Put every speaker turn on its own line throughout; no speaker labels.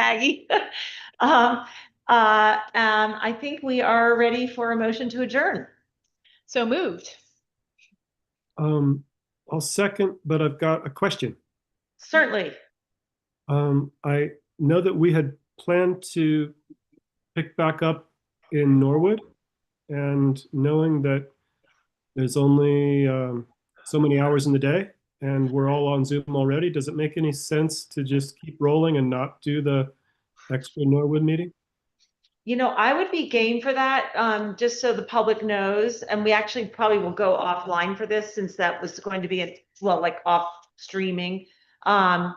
Maggie. Um, uh, um, I think we are ready for a motion to adjourn. So moved.
Um, I'll second, but I've got a question.
Certainly.
Um, I know that we had planned to pick back up in Norwood. And knowing that there's only, um, so many hours in the day and we're all on Zoom already, does it make any sense to just keep rolling and not do the extra Norwood meeting?
You know, I would be game for that, um, just so the public knows, and we actually probably will go offline for this since that was going to be, a well, like off streaming. Um,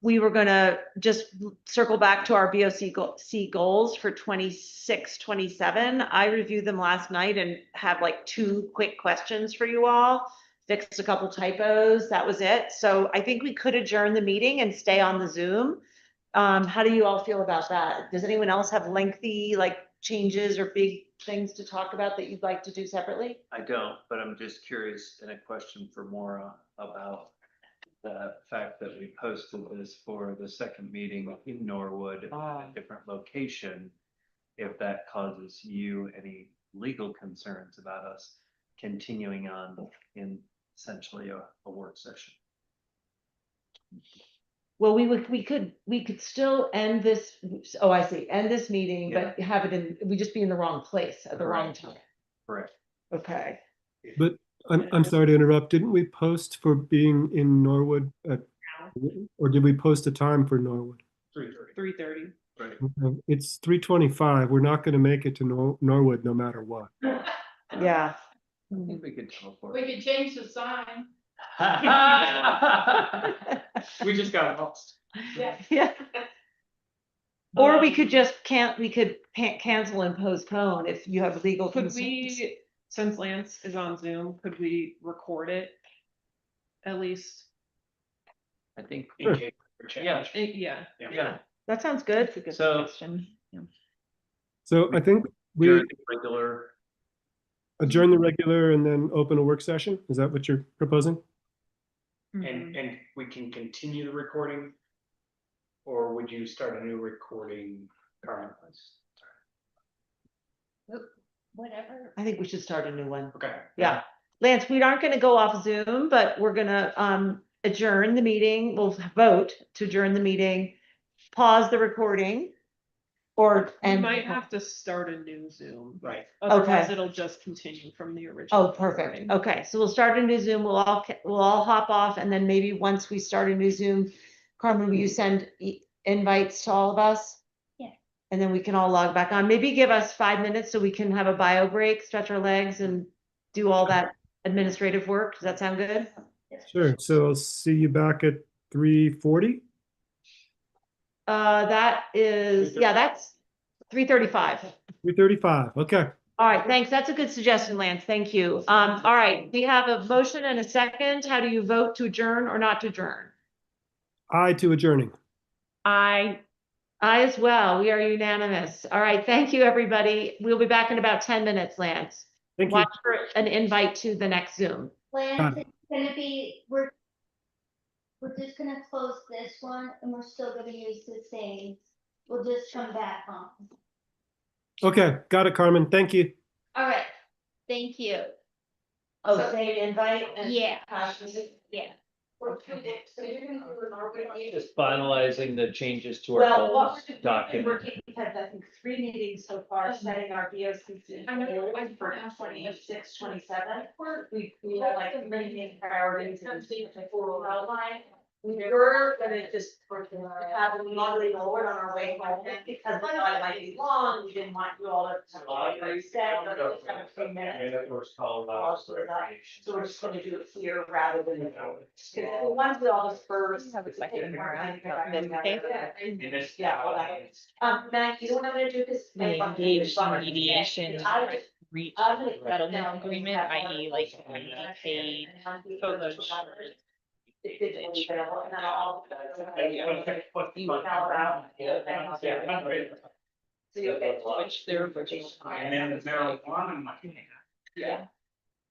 we were gonna just circle back to our BOC go- C goals for 26, 27. I reviewed them last night and had like two quick questions for you all. Fixed a couple typos, that was it. So I think we could adjourn the meeting and stay on the Zoom. Um, how do you all feel about that? Does anyone else have lengthy, like, changes or big things to talk about that you'd like to do separately?
I don't, but I'm just curious and a question for Maura about the fact that we posted this for the second meeting in Norwood at a different location. If that causes you any legal concerns about us continuing on in essentially a, a work session.
Well, we would, we could, we could still end this, oh, I see, end this meeting, but have it in, we just be in the wrong place at the wrong
Correct.
time.
Correct.
Okay.
I'm, I'm sorry to interrupt. Didn't we post for being in Norwood at, or did we post a time for Norwood?
Three
three thirty.
thirty.
Okay, It's three twenty-five. We're not gonna make it to Nor- Norwood no matter what.
Yeah.
I
Mm-hmm.
Mm-hmm.
think we could teleport.
We could change the sign.
We just got lost.
Yeah. Or
Um,
we could just can't, we could pan- cancel and postpone if you have legal
Could
concerns.
we, since Lance is on Zoom, could we record it? At least,
I think,
Sure.
yeah,
eh, yeah.
yeah.
That sounds good.
good So-
So I think we
You're a Regular,
adjourn the regular and then open a work session. Is that what you're proposing?
Mm-hmm.
And, and we can continue the recording? Or would you start a new recording currently?
Whatever.
I think we should start a new one.
Okay.
Yeah. Lance, we aren't gonna go off Zoom, but we're gonna um adjourn the meeting. We'll vote to adjourn the meeting. Pause the recording. Or
We
and.
might have to start a new Zoom,
Right.
otherwise it'll just continue from the original.
Oh, perfect.
recording.
Okay, so we'll start a new Zoom. We'll all, ca- we'll all hop off and then maybe once we start a new Zoom, Carmen, will you send e- invites to all of us?
Yeah.
And then we can all log back on. Maybe give us five minutes so we can have a bio break, stretch our legs and do all that administrative work. Does that sound good?
Sure. So I'll see you back at three forty.
Uh, that is, yeah, that's three thirty-five.
Three thirty-five. Okay.
All right, thanks. That's a good suggestion, Lance. Thank you. Um, all right, we have a motion and a second. How do you vote to adjourn or not to adjourn?
Aye to adjourning.
I. I as well. We are unanimous. All right, thank you, everybody. We'll be back in about ten minutes, Lance.
Thank you.
Watch for an invite to the next Zoom.
Lance, it's gonna be, we're, we're just gonna close this one and we're still gonna use the same. We'll just come back on.
Okay. Got it, Carmen. Thank you.
All right, thank you.
Oh, same invite
Yeah, yeah.
just finalizing the changes to our
Well, what
goals
we're doing, we're
document.
taking, we've had, I think, three meetings so far, setting our B O C C.
I know, I
For
forgot.
twenty-six, twenty-seven, we, we have like three main priorities and the formal outline. We We're gonna just have a monthly board on our way home, because we thought it might be long, we didn't want you all to. have a lot of set, but we just have a few minutes.
uh,
So we're just gonna do it here rather than. Because the ones with all the first. Yeah, all that. Um, Matt, you know what I'm gonna do, cause.
We engaged in mediation,
I-
reach
I'm gonna put down-
settlement agreement, i.e. like
And
we
I'll
paid
do it
photo
for
shoot.
others. It did what we did, and then I'll- So you'll get.
Which they're British.
Yeah.